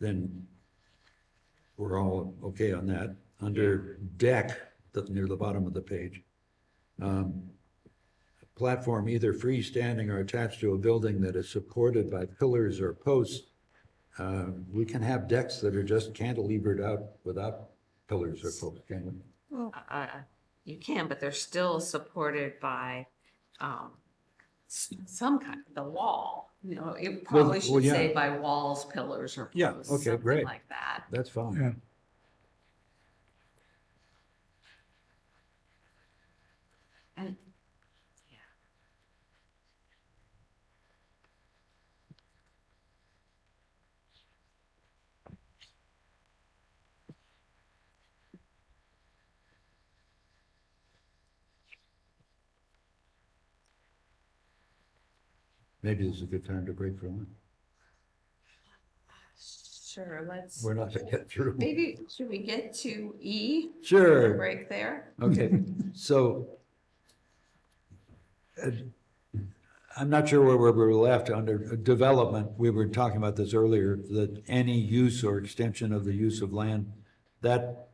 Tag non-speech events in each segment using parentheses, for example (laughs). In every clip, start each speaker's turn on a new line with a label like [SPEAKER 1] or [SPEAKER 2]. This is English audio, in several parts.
[SPEAKER 1] then we're all okay on that. Under deck, the- near the bottom of the page, um, platform either freestanding or attached to a building that is supported by pillars or posts. Uh, We can have decks that are just cantilevered out without pillars or posts, can we?
[SPEAKER 2] uh, you can, but they're still supported by, um, s- some kind, the wall, you know, it probably
[SPEAKER 1] well,
[SPEAKER 2] should
[SPEAKER 1] yeah.
[SPEAKER 2] say by walls, pillars, or
[SPEAKER 1] Yeah,
[SPEAKER 2] posts,
[SPEAKER 1] okay,
[SPEAKER 2] something
[SPEAKER 1] great.
[SPEAKER 2] like that.
[SPEAKER 1] That's
[SPEAKER 3] Yeah.
[SPEAKER 1] fine.
[SPEAKER 2] And, yeah.
[SPEAKER 1] Maybe this is a good time to break for lunch.
[SPEAKER 2] Sure, let's,
[SPEAKER 1] We're not gonna get through.
[SPEAKER 2] maybe, should we get to E?
[SPEAKER 1] Sure.
[SPEAKER 2] Break there?
[SPEAKER 1] Okay, so uh, I'm not sure where we were left under development. We were talking about this earlier, that any use or extension of the use of land, that,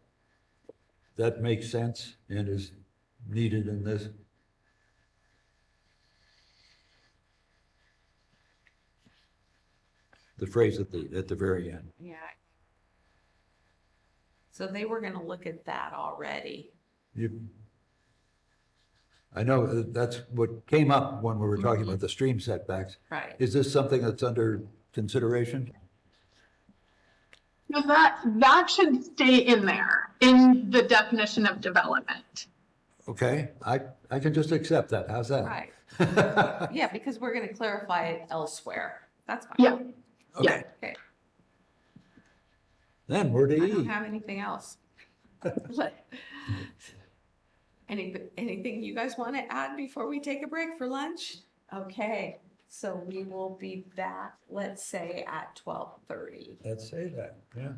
[SPEAKER 1] that makes sense and is needed in this. The phrase at the, at the very end.
[SPEAKER 2] Yeah. So they were gonna look at that already.
[SPEAKER 1] You, I know that that's what came up when we were talking about the stream setbacks.
[SPEAKER 2] Right.
[SPEAKER 1] Is this something that's under consideration?
[SPEAKER 4] No, that, that should stay in there, in the definition of development.
[SPEAKER 1] Okay, I, I can just accept that. How's that? (laughs)
[SPEAKER 2] Right. Yeah, because we're gonna clarify it elsewhere. That's fine.
[SPEAKER 4] Yeah.
[SPEAKER 1] Okay,
[SPEAKER 2] Okay,
[SPEAKER 1] then we're to
[SPEAKER 2] I don't
[SPEAKER 1] E.
[SPEAKER 2] have anything else. But- Any, anything you guys want to add before we take a break for lunch? Okay, so we will be back, let's say at twelve thirty. (laughs)
[SPEAKER 1] Let's say that, yeah.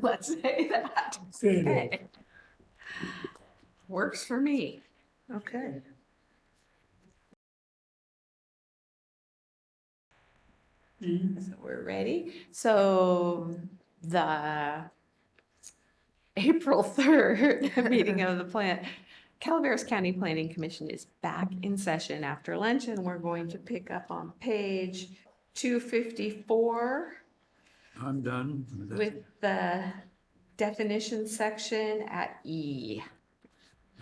[SPEAKER 2] Let's say that.
[SPEAKER 3] Good.
[SPEAKER 2] Okay. Works for me. Okay. So we're ready. So the (laughs) April 3rd (laughs) meeting of the plant, Calaveras County Planning Commission is back in session after lunch and we're going to pick up on page 254
[SPEAKER 1] I'm done.
[SPEAKER 2] with the definition section at E.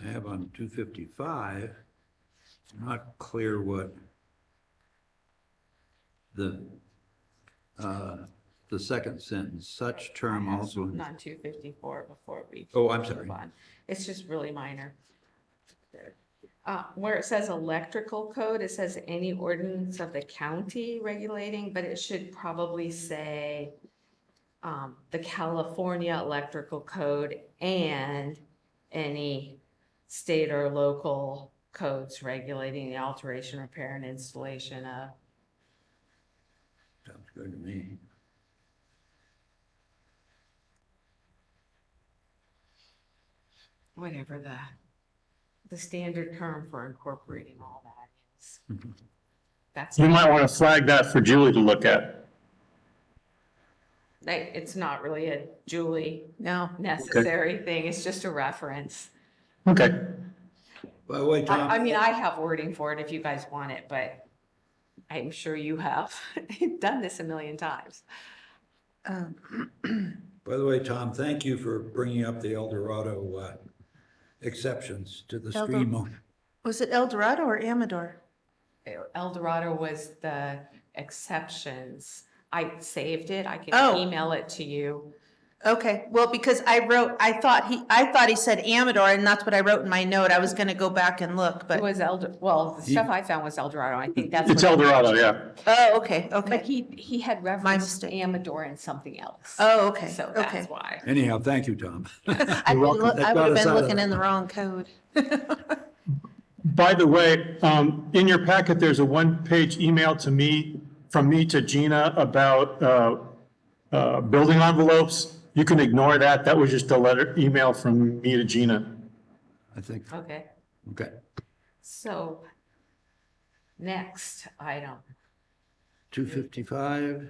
[SPEAKER 1] I have on two fifty-five, not clear what the, uh, the second sentence, such term also.
[SPEAKER 2] Not two fifty-four before we.
[SPEAKER 1] Oh, I'm sorry.
[SPEAKER 2] move on. It's just really minor. Uh, where it says electrical code, it says any ordinance of the county regulating, but it should probably say um, the California Electrical Code and any state or local codes regulating the alteration, repair, and installation of
[SPEAKER 1] Sounds good to me.
[SPEAKER 2] whatever the, the standard term for incorporating all that is. That's,
[SPEAKER 5] You Mm-hmm. might want to flag that for Julie to look at.
[SPEAKER 2] like, it's not really a Julie necessary thing, it's just a reference.
[SPEAKER 5] Okay.
[SPEAKER 1] By the way, Tom.
[SPEAKER 2] I, I mean, I have wording for it if you guys want it, but I'm sure you have (laughs) done this a million times. Um,
[SPEAKER 1] By the way, Tom, thank you for bringing up the El Dorado uh, exceptions to the
[SPEAKER 6] El Dor-
[SPEAKER 1] stream. on-
[SPEAKER 6] Was it El Dorado or Amador?
[SPEAKER 2] El Dorado was the exceptions. I saved it, I can
[SPEAKER 6] Oh.
[SPEAKER 2] email it to you.
[SPEAKER 6] Okay, well, because I wrote, I thought he, I thought he said Amador, and that's what I wrote in my note. I was gonna go back and look,
[SPEAKER 2] It
[SPEAKER 6] but,
[SPEAKER 2] was El, well, the stuff I found was El Dorado, I think that's.
[SPEAKER 5] It's
[SPEAKER 2] what-
[SPEAKER 5] El Dorado, yeah.
[SPEAKER 6] oh, okay,
[SPEAKER 2] But
[SPEAKER 6] okay.
[SPEAKER 2] he, he had referenced
[SPEAKER 6] mistake.
[SPEAKER 2] Amador and something else.
[SPEAKER 6] Oh, okay,
[SPEAKER 2] So
[SPEAKER 6] okay.
[SPEAKER 2] that's why.
[SPEAKER 1] Anyhow, thank you, Tom.
[SPEAKER 6] I
[SPEAKER 1] You're welcome. That got
[SPEAKER 6] would have
[SPEAKER 1] us
[SPEAKER 6] been
[SPEAKER 1] out of
[SPEAKER 6] looking
[SPEAKER 1] that.
[SPEAKER 6] in the wrong code.
[SPEAKER 5] By the way, um, in your packet, there's a one-page email to me, from me to Gina about, uh, uh, building envelopes. You can ignore that. That was just a letter, email from me to Gina.
[SPEAKER 1] I think,
[SPEAKER 2] Okay,
[SPEAKER 1] okay.
[SPEAKER 2] so next item.
[SPEAKER 1] 255,